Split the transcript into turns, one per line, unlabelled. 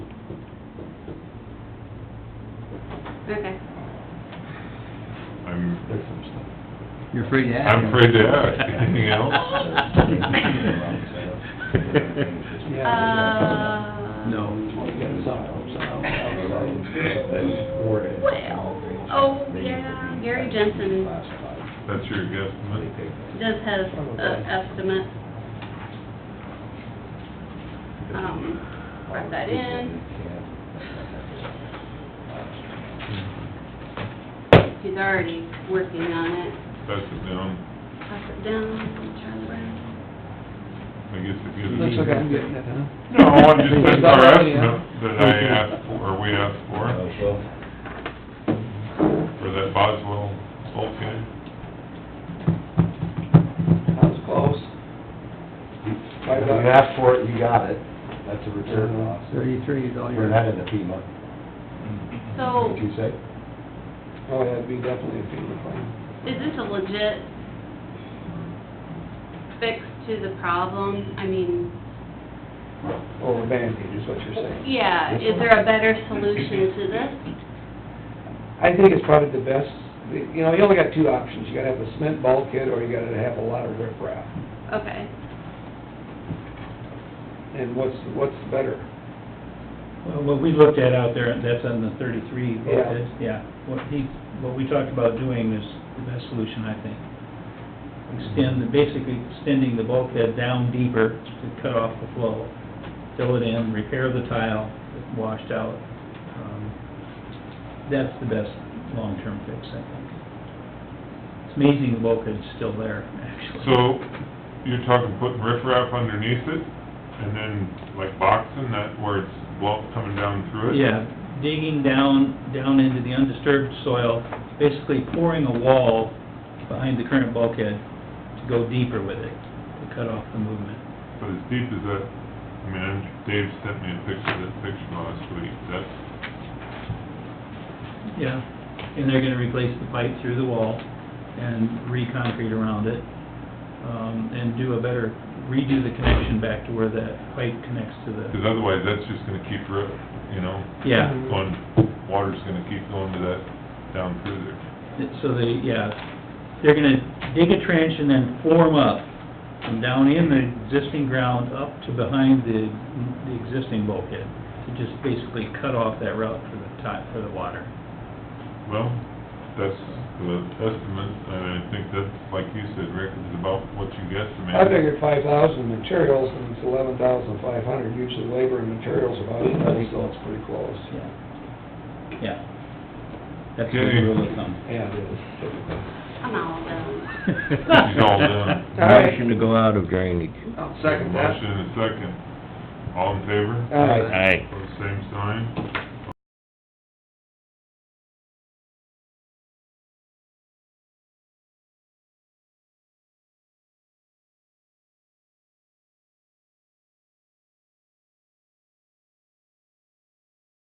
Okay.
I'm,
There's some stuff.
You're free to ask.
I'm afraid to ask, anything else?
Uh.
No.
Well, oh, yeah, Gary Jensen
That's your guesstimate?
does have an estimate. Um, write that in.
Hmm.
He's already working on it.
That's it down,
Pass it down, Charlie Brown.
I guess it gives.
Looks like I'm getting it, huh?
No, I'm just, that's our
Yeah.
estimate that I asked for, or we asked for, for that Boswell bulkhead.
That was close.
If you asked for it, you got it. That's a return loss.
Thirty-three is all your,
We're not in the FEMA,
So,
what you say?
Oh, yeah, it'd be definitely a FEMA claim.
is this a legit fix to the problem? I mean,
Oh, a Band-Aid is what you're saying.
yeah, is there a better solution to this?
I think it's probably the best, you know, you only got two options. You gotta have a cement bulkhead or you gotta have a lot of riprap.
Okay,
And what's, what's better?
Well, What we looked at out there, that's on the thirty-three,
Yeah.
bulkhead, yeah. What he, what we talked about doing is the best solution, I think. Extend, basically extending the bulkhead down deeper to cut off the flow, fill it in, repair the tile that washed out. Um, That's the best long-term fix, I think. It's amazing the bulkhead's still there, actually.
So, you're talking putting riprap underneath it, and then like boxing that where it's blow coming down through it?
Yeah, digging down, down into the undisturbed soil, basically pouring a wall behind the current bulkhead to go deeper with it, to cut off the movement.
But as deep as that, I mean, I'm- Dave sent me a picture of that picture last week, that's,
Yeah, and they're gonna replace the pipe through the wall and re-concrete around it, um, and do a better, redo the connection back to where that pipe connects to the,
because otherwise that's just gonna keep rip, you know?
yeah.
Going, water's gonna keep going to that, down through there.
So they, yeah, they're gonna dig a trench and then form up from down in the existing ground up to behind the, the existing bulkhead. To just basically cut off that route for the ti, for the water.
Well, that's the estimate, and I think that's, like you said, Rick, is about what you guesstimated.
I figured five thousand materials and it's eleven thousand five hundred. Usually labor and materials are about equal, so it's pretty close.
Yeah. Yeah. That's where the rule of thumb.
Yeah, it is typically.
I'm all done.
She's all done.
right.
Motion to go out of drainage.
I'll second that.
Motion and a second. All in favor?
All right.
Aye.
Pose same sign.